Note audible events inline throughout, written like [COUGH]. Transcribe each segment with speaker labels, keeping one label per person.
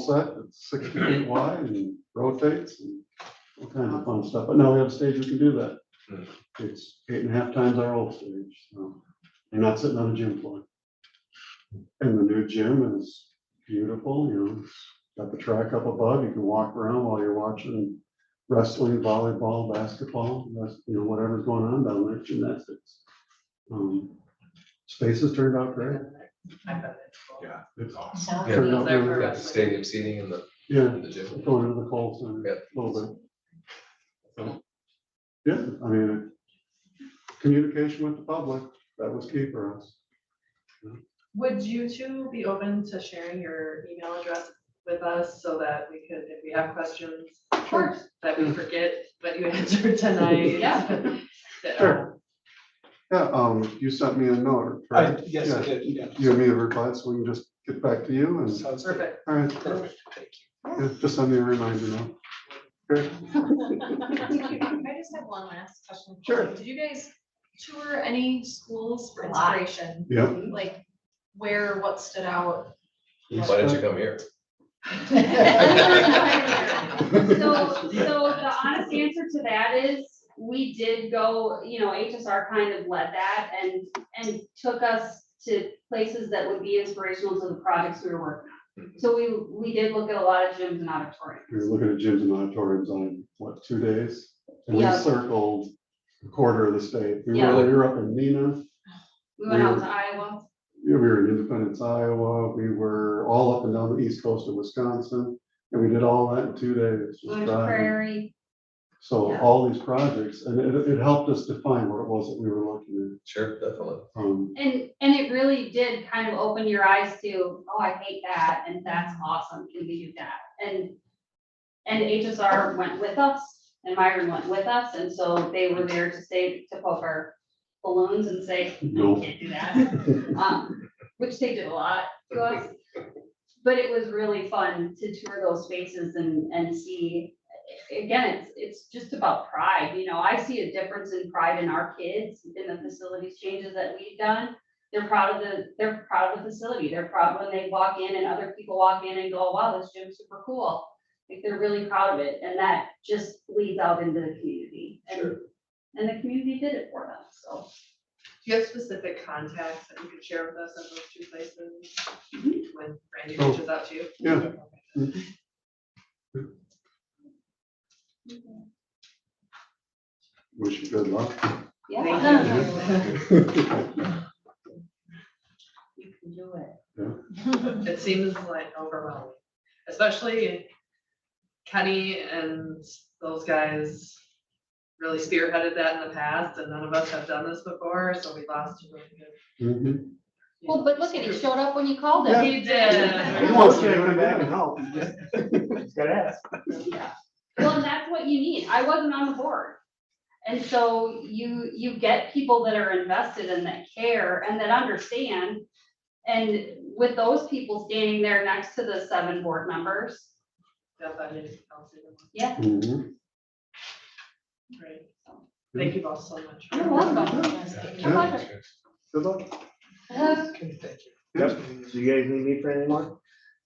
Speaker 1: set, it's sixty feet wide and rotates and all kinds of fun stuff, but now we have a stage we can do that.
Speaker 2: Hmm.
Speaker 1: It's eight and a half times our old stage, so you're not sitting on a gym floor. And the new gym is beautiful, you know, it's got the track up above, you can walk around while you're watching wrestling, volleyball, basketball, that's, you know, whatever's going on down there, gymnastics. Um, Spaces turned out great.
Speaker 2: Yeah, it's awesome.
Speaker 3: Sounds
Speaker 2: Yeah.
Speaker 3: like
Speaker 1: Turned out
Speaker 3: they're
Speaker 1: really
Speaker 2: Got
Speaker 1: good.
Speaker 2: the stadium seating in the,
Speaker 1: Yeah,
Speaker 2: in the gym.
Speaker 1: going into the cold center a little bit. Yeah, I mean, communication with the public, that was key for us.
Speaker 3: Would you two be open to sharing your email address with us so that we could, if we have questions? Of course. That we forget what you [LAUGHS] answered
Speaker 4: [LAUGHS]
Speaker 3: tonight.
Speaker 4: Yeah.
Speaker 3: That,
Speaker 1: Sure. Yeah, um, you sent me a note,
Speaker 5: I,
Speaker 1: right?
Speaker 5: yes, I
Speaker 1: Yeah.
Speaker 5: did, yeah.
Speaker 1: You and me a reply, so we can just get back to you and,
Speaker 5: Sounds good.
Speaker 3: Perfect.
Speaker 1: all right,
Speaker 5: Perfect, thank
Speaker 1: yeah, just send me a reminder now. Great.
Speaker 4: I just have one last question.
Speaker 1: Sure.
Speaker 4: Did you guys tour any schools for
Speaker 3: A lot.
Speaker 4: inspiration?
Speaker 1: Yep.
Speaker 4: Like where, what stood
Speaker 3: [LAUGHS]
Speaker 2: [LAUGHS]
Speaker 4: out? [LAUGHS]
Speaker 2: Why didn't you come here?
Speaker 6: So, so the honest answer to that is, we did go, you know, HSR kind of led that and, and took us to places that would be inspirational to the projects we were working on. So we, we did look at a lot of gyms and
Speaker 1: We were
Speaker 6: auditoriums.
Speaker 1: looking at gyms and auditoriums on, what, two days? And we
Speaker 6: Yeah.
Speaker 1: circled a quarter of the state. We
Speaker 6: Yeah.
Speaker 1: were, we were up in Nina.
Speaker 6: We went out to Iowa.
Speaker 1: Yeah, we were in Independence, Iowa, we were all up and down the east coast of Wisconsin, and we did all that in two days.
Speaker 6: We
Speaker 1: just
Speaker 6: went to
Speaker 1: driving.
Speaker 6: Prairie.
Speaker 1: So
Speaker 6: yeah.
Speaker 1: all these projects, and it, it helped us define what it was that we were looking
Speaker 2: Sure, definitely.
Speaker 1: at. Um,
Speaker 6: And, and it really did kind of open your eyes to, oh, I hate that, and that's awesome, can we do that? And, and HSR went with us, and Myron went with us, and so they were there to say, to poke our balloons and say, no,
Speaker 1: No.
Speaker 6: we can't do that. Um, Which they did a lot to us. But it was really fun to tour those spaces and, and see, again, it's, it's just about pride, you know, I see a difference in pride in our kids in the facilities changes that we've done. They're proud of the, they're proud of the facility, they're proud when they walk in and other people walk in and go, wow, this gym's super cool. Like, they're really proud of it, and that just leads out into the community, and,
Speaker 2: Sure.
Speaker 6: and the community did it for them, so.
Speaker 3: Do you have specific contacts that you could share with us at those two places?
Speaker 4: Mm-hmm.
Speaker 6: Mhm.
Speaker 3: When Randy
Speaker 1: Oh,
Speaker 3: reaches out to you?
Speaker 1: yeah. Wish you good [LAUGHS] luck. Mm-hmm.
Speaker 6: Yeah.
Speaker 1: Yeah,
Speaker 6: You can do it.
Speaker 3: It seems like overwhelming, especially Kenny and those guys really spearheaded that in the past, and none of us have done this before, so we lost. a really good-
Speaker 1: Mhm.
Speaker 4: Well, but look at, he showed up when you called
Speaker 1: Yeah.
Speaker 4: him.
Speaker 3: He
Speaker 1: [LAUGHS]
Speaker 3: did.
Speaker 1: He wants to do it again.
Speaker 5: help, you just, just gotta ask.
Speaker 6: Yeah. Well, and that's what you need. I wasn't on the board. And so you, you get people that are invested and that care and that understand. And with those people standing there next to the seven board members,
Speaker 3: Jeff, I didn't- I'll see them.
Speaker 6: yeah.
Speaker 1: Mhm.
Speaker 3: Great. Thank you both so much.
Speaker 6: You're welcome.
Speaker 1: Yeah.
Speaker 2: Yeah.
Speaker 1: Good luck.
Speaker 5: Okay, thank you.
Speaker 1: Yep.
Speaker 5: Do you guys need me for any more?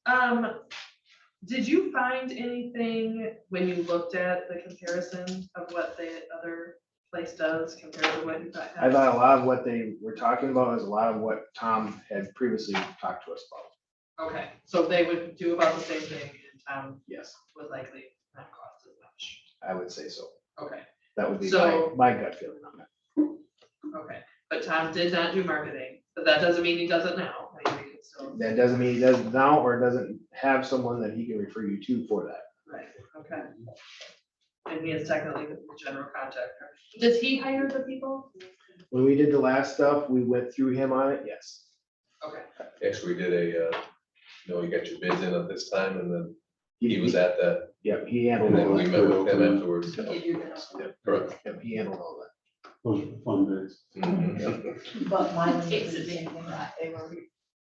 Speaker 3: Um, did you find anything when you looked at the comparison of what the other place does compared to what you thought?
Speaker 7: I
Speaker 3: happened?
Speaker 7: thought a lot of what they were talking about is a lot of what Tom had previously talked to us about.
Speaker 3: Okay, so they would do about the same thing and town
Speaker 7: Yes,
Speaker 3: would likely not cost as much.
Speaker 7: I would say so.
Speaker 3: Okay,
Speaker 7: That would be my,
Speaker 3: So-
Speaker 7: my gut feeling on that.
Speaker 3: okay, but Tom did not do marketing, but that doesn't mean he does it now. I mean, he could still-
Speaker 7: That doesn't mean he doesn't now or doesn't have someone that he can refer you to for that.
Speaker 3: Right, okay. And he is technically the general contractor. Does he hire the people?
Speaker 7: When we did the last stuff, we went through him on it, yes.
Speaker 3: Okay,
Speaker 2: Actually, we did a, uh, you know, you got your bids in at this time and then he was at that,
Speaker 7: Yep, he
Speaker 2: and
Speaker 7: handled
Speaker 2: then
Speaker 7: all
Speaker 2: we
Speaker 7: that.
Speaker 2: met with him afterwards.
Speaker 3: Get you that.
Speaker 7: Yep,
Speaker 2: Correct.
Speaker 7: Yep, he handled all that.
Speaker 1: Those are the fun days.
Speaker 2: Mhm.
Speaker 4: But mine
Speaker 6: was the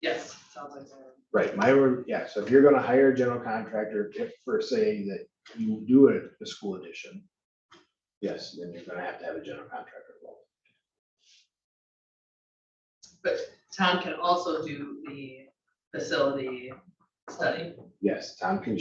Speaker 3: yes, sounds like so.
Speaker 7: Right, my, word- yeah, so if you're gonna hire a general contractor, if for say that you do a, a school addition. Yes, then you're gonna have to have a general contractor involved.
Speaker 3: But Tom can also do the facility study.
Speaker 7: Yes, Tom can